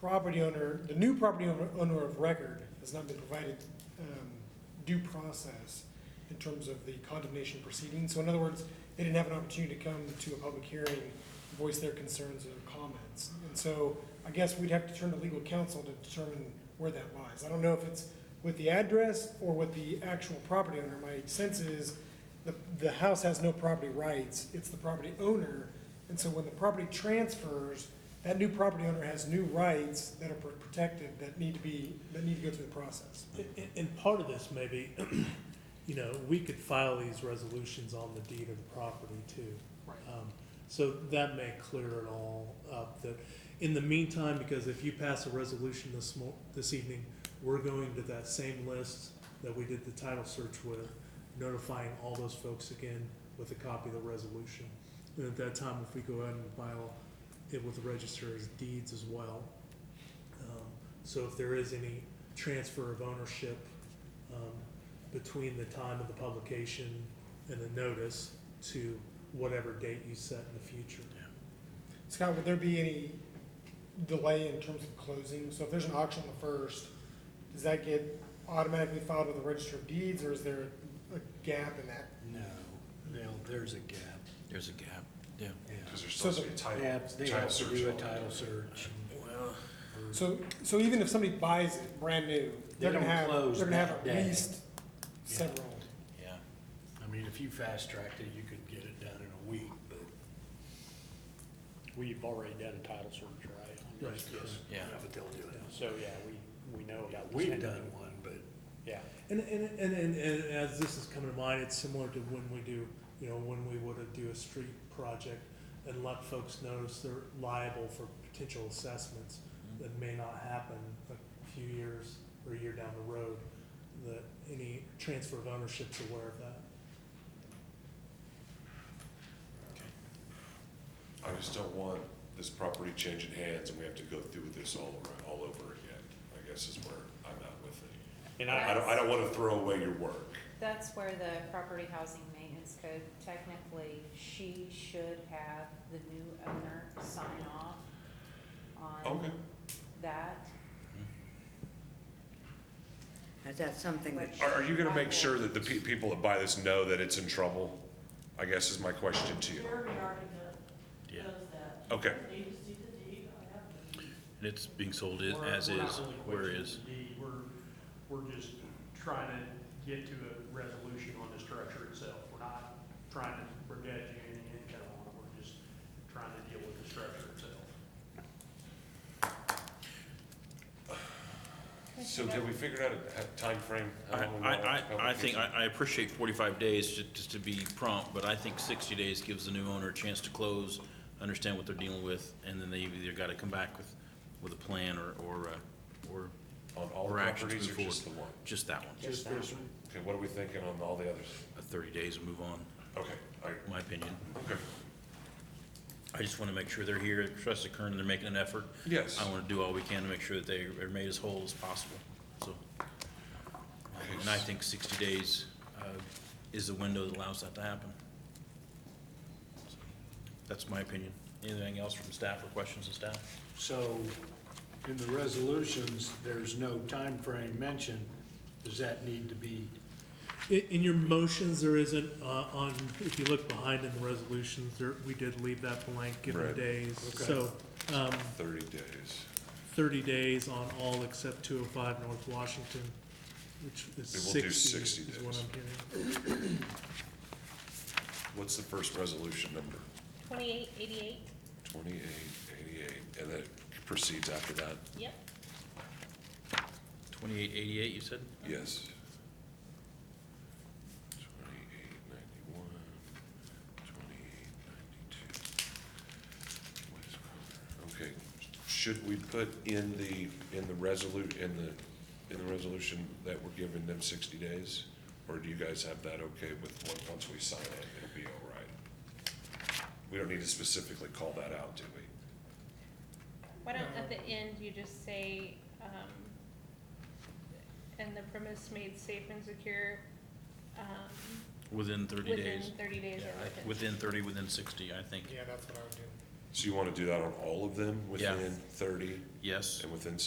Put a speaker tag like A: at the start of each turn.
A: property owner, the new property owner owner of record has not been provided um, due process in terms of the condemnation proceeding. So in other words, they didn't have an opportunity to come to a public hearing, voice their concerns or comments. And so I guess we'd have to turn to legal counsel to determine where that lies. I don't know if it's with the address or with the actual property owner. My sense is the, the house has no property rights, it's the property owner. And so when the property transfers, that new property owner has new rights that are pr- protected that need to be, that need to go through the process.
B: And, and part of this maybe, you know, we could file these resolutions on the deed of the property too.
A: Right.
B: Um, So that may clear it all up, that, in the meantime, because if you pass a resolution this mo- this evening, we're going to that same list that we did the title search with, notifying all those folks again with a copy of the resolution. And at that time, if we go ahead and file it with the register as deeds as well. um, So if there is any transfer of ownership, um, between the time of the publication and the notice to whatever date you set in the future.
A: Scott, would there be any delay in terms of closing? So if there's an auction on the first, does that get automatically filed with the register of deeds, or is there a gap in that?
C: No, no, there's a gap,
D: There's a gap, yeah.
C: yeah.
E: Because there's
A: So
E: supposed to be a
C: They
E: title,
C: have, they
E: title
C: have to
E: search
C: do a
E: on it.
C: title search.
D: Well,
A: So, so even if somebody buys it brand new, they're
C: They
A: gonna
C: don't
A: have,
C: close
A: they're gonna have
C: that
A: at
C: day.
A: least
C: Yeah.
A: several.
D: yeah.
C: I mean, if you fast-tracked it, you could get it done in a week, but.
F: We've already done a title search, right? on this?
B: Right,
F: Yes.
D: Yeah.
C: But they'll do it.
F: So, yeah, we, we know about. this
C: We've
F: entity.
C: done one, but
F: Yeah,
B: And, and, and, and, and as this is coming to mind, it's similar to when we do, you know, when we would do a street project and let folks notice they're liable for potential assessments that may not happen a few years or a year down the road, that any transfer of ownership's aware of that.
E: I just don't want this property changing hands and we have to go through this all, over- all over again, I guess is where I'm at with it.
F: and
E: I
F: I,
E: don't, I don't wanna throw away your work.
G: That's where the property housing maintenance code, technically, she should have the new owner sign off
E: Okay,
G: on that.
H: Is that something that,
E: are, are you gonna make sure that the pe- people that buy this know that it's in trouble? I guess is my question to you.
I: Jeremy already knows
D: Yeah.
I: knows that.
E: Okay,
I: Need to see the deed, I have the deed.
D: And it's being sold
J: We're-
D: i- as
J: we're not
D: is,
J: really
D: where
J: questioning
D: is.
J: the deed. We're, we're just trying to get to a resolution on the structure itself. We're not trying to brigade you any income on it, we're just trying to deal with the structure itself.
E: so have we figured out a a timeframe? How
D: I,
E: long we want
D: I, I, I think,
E: publication?
D: I, I appreciate forty-five days ju- just to be prompt, but I think sixty days gives the new owner a chance to close, understand what they're dealing with, and then they've either gotta come back with, with a plan or, or, uh, or,
E: On all
D: or actions
E: properties
D: move
E: or just the
D: forward.
E: one?
D: just that one.
C: just this one.
E: Okay, what are we thinking on all the others?
D: Uh, Thirty days and move on,
E: Okay, all right,
D: in my opinion.
E: okay,
D: I just wanna make sure they're here, trust the current, they're making an effort.
E: yes.
D: I wanna do all we can to make sure that they are made as whole as possible, so. And I think sixty days, uh, is the window that allows that to happen. So, That's my opinion. Anything else from staff or questions of staff?
C: So in the resolutions, there's no time frame mentioned. Does that need to be,
B: In, in your motions, there isn't, uh, on, if you look behind in the resolutions, there, we did leave that blank, given the
E: Right.
B: days.
C: Okay.
B: So, um,
E: Thirty days.
B: thirty days on all except two oh five North Washington, which is
E: We will do
B: sixty
E: 60
B: is what
E: days.
B: I'm hearing.
E: What's the first resolution number?
G: Twenty-eight eighty-eight?
E: Twenty-eight eighty-eight, and then it proceeds after that?
G: Yep.
D: Twenty-eight eighty-eight, you said?
E: Yes. Twenty-eight ninety-one, twenty-eight ninety-two. What is going on? Okay, should we put in the, in the resolu, in the, in the resolution that we're giving them sixty days? Or do you guys have that okay with, on- once we sign it, it'll be all right? We don't need to specifically call that out, do we?
K: Why don't, at the end, you just say, um, and the premise made safe and secure, um,
D: Within thirty
K: within
D: days.
K: thirty days
D: Yeah,
K: or
D: I-
K: within.
D: Within thirty, within sixty, I think.
A: Yeah, that's what I would do.
E: So you want to do that on all of them
D: Yeah.
E: within thirty?
D: Yes.
E: And within